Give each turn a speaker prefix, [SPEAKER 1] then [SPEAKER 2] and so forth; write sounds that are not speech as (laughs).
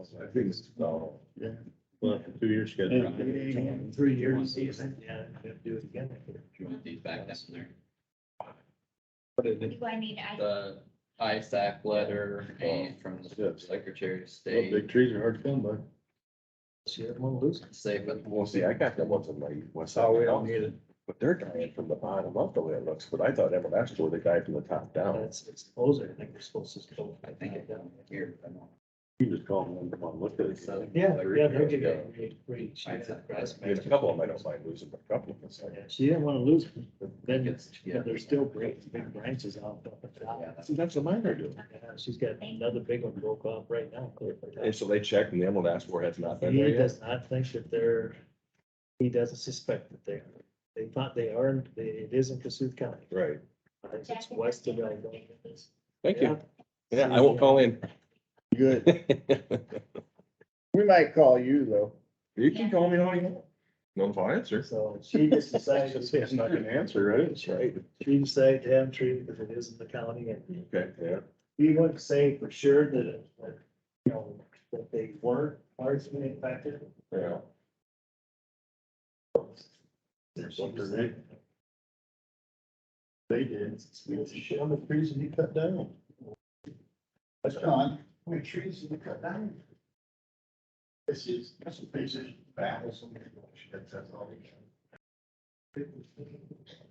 [SPEAKER 1] I think it's twelve.
[SPEAKER 2] Yeah.
[SPEAKER 1] Well, after two years, you got.
[SPEAKER 2] Three years. Yeah, do it again.
[SPEAKER 3] You want these back down there?
[SPEAKER 4] Do I need, I,
[SPEAKER 3] The ISAC letter and from the Secretary of
[SPEAKER 1] Well,
[SPEAKER 3] State,
[SPEAKER 1] big trees are hard to come by.
[SPEAKER 3] say, but
[SPEAKER 5] Well, see, I got that one from like, what's that?
[SPEAKER 2] Oh, we don't need it.
[SPEAKER 5] But they're dying from the bottom up the way it looks, but I thought Everlasting were the guy from the top down.
[SPEAKER 2] That's, it's closer. I think we're supposed to. go
[SPEAKER 3] I think it down here. I don't-
[SPEAKER 1] You just call them and come on, look at it.
[SPEAKER 3] So-
[SPEAKER 2] Yeah, yeah, they'll give
[SPEAKER 3] Yeah.
[SPEAKER 2] you a reach.
[SPEAKER 3] ISAC
[SPEAKER 5] I mean, a
[SPEAKER 3] resume.
[SPEAKER 5] couple of them, I don't mind losing, but a couple of them, it's like,
[SPEAKER 2] Yeah, She didn't want to lose, them, but then it's,
[SPEAKER 3] Gets
[SPEAKER 2] yeah,
[SPEAKER 3] together.
[SPEAKER 2] there's still great big branches out up at the top.
[SPEAKER 3] Yeah, that's-
[SPEAKER 5] see, that's what mine are doing.
[SPEAKER 2] Yeah, She's got another big one broke off right now. clear for that.
[SPEAKER 5] And so they checked and the Everlasting were has not been there
[SPEAKER 2] He
[SPEAKER 5] yet.
[SPEAKER 2] does not think that they're, he doesn't suspect that they are. They thought they are, and they- it is in Cassuth County.
[SPEAKER 5] Right.
[SPEAKER 2] I think It's west of Algonquin.
[SPEAKER 5] Thank you. Yeah, I won't call in. (laughs)
[SPEAKER 6] Good.
[SPEAKER 5] You
[SPEAKER 6] We might call you though.
[SPEAKER 5] can call me all you want. No, if I answer.
[SPEAKER 2] So she just
[SPEAKER 1] (laughs)
[SPEAKER 2] decided,
[SPEAKER 1] It's not gonna answer, right?
[SPEAKER 5] That's right.
[SPEAKER 2] she decided to have him treated because it is in the county and
[SPEAKER 5] Okay, yeah.
[SPEAKER 2] we wouldn't say for sure that, it- that, you know, that they were largely infected.
[SPEAKER 5] Yeah.
[SPEAKER 2] She was like,
[SPEAKER 1] They did. Shit on the trees that you cut down.
[SPEAKER 7] That's John, how many trees did you cut down? This is, that's a basic battle, so many bullshit, that's all they can.